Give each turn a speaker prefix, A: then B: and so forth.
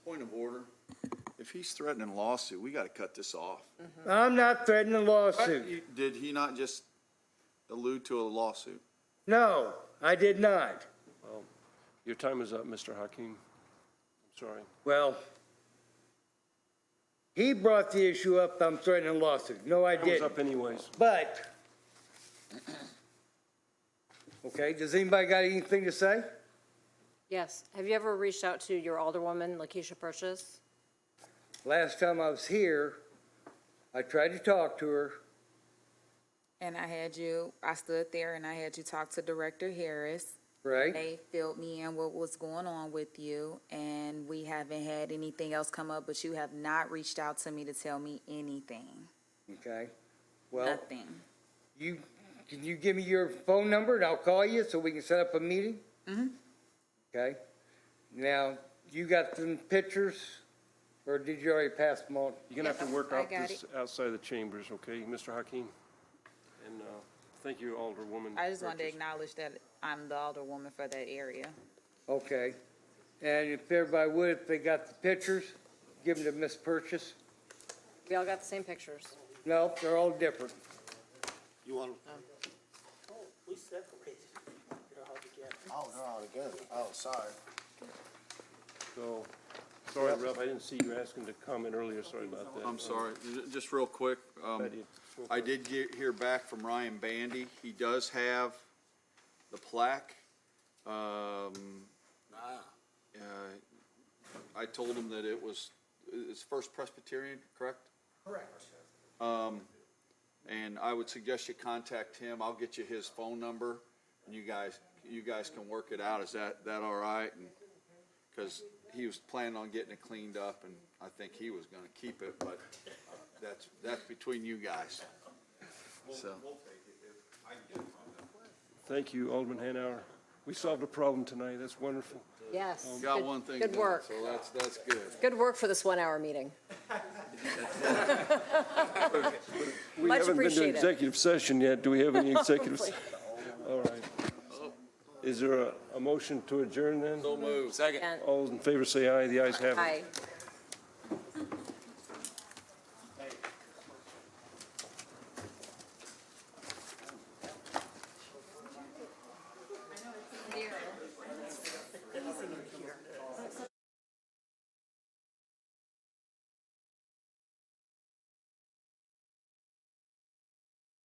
A: If he's threatening lawsuit, we gotta cut this off.
B: I'm not threatening a lawsuit.
A: You- Did he not just allude to a lawsuit?
B: No, I did not.
C: Your time is up, Mr. Hakeem. I'm sorry.
B: Well, he brought the issue up, I'm threatening a lawsuit. No, I
C: Time was
B: didn't.
C: up anyways.
B: But, okay, does anybody got anything to say?
D: Yes. Have you ever reached out to your alderwoman, Lakeisha Purchase?
B: Last time I was here, I tried to talk to her.
E: And I had you, I stood there and I had you talk to Director Harris.
B: Right?
E: They filled me in what was going on with you, and we haven't had anything else come up, but you have not reached out to me to tell me anything.
B: Okay. Well,
E: Nothing.
B: you, can you give me your phone number and I'll call you so we can set up a meeting? Mm-hmm. Okay. Now, you got some pictures, or did you already pass them on?
C: You're gonna have to work
E: I
C: out
E: got
C: this outside the chambers, okay, Mr. Hakeem? And, uh, thank you, Alderwoman.
E: I just wanted to
C: Burgess.
E: acknowledge that I'm the alderwoman for that area.
B: Okay. And if everybody would, if they got the pictures, give them to Miss Purchase.
D: We all got the same pictures.
B: No, they're all different.
F: You want,
G: We separated. They're all together.
F: oh, they're all together. Oh, sorry.
C: So, sorry, Ralph, I didn't see you asking to comment earlier, sorry about that.
A: I'm sorry, J- just real quick, um,
C: But it's-
A: I did get, hear back from Ryan Bandy. He does have the plaque. Um, uh, I told him that it was, it's First Presbyterian, correct? Um,
G: Correct.
A: And I would suggest you contact him. I'll get you his phone number and you guys, you guys can work it out. Is that, that all right? And- Cause he was planning on getting it cleaned up and I think he was gonna keep it, but uh, that's, that's between you guys. So,
C: Thank you, Alderman Hanauer. We solved a problem tonight, that's wonderful.
D: Yes.
A: Oh, got
D: Good-
A: one thing
D: Good
A: done,
D: work.
A: so that's, that's good.
D: Good work for this one-hour meeting. Much
C: We haven't been
D: appreciated.
C: to executive session yet, do we have any executives? All right. Is there a, a motion to adjourn then?
A: So moved.
D: And
C: All those in favor say aye, the ayes have it.
D: Aye.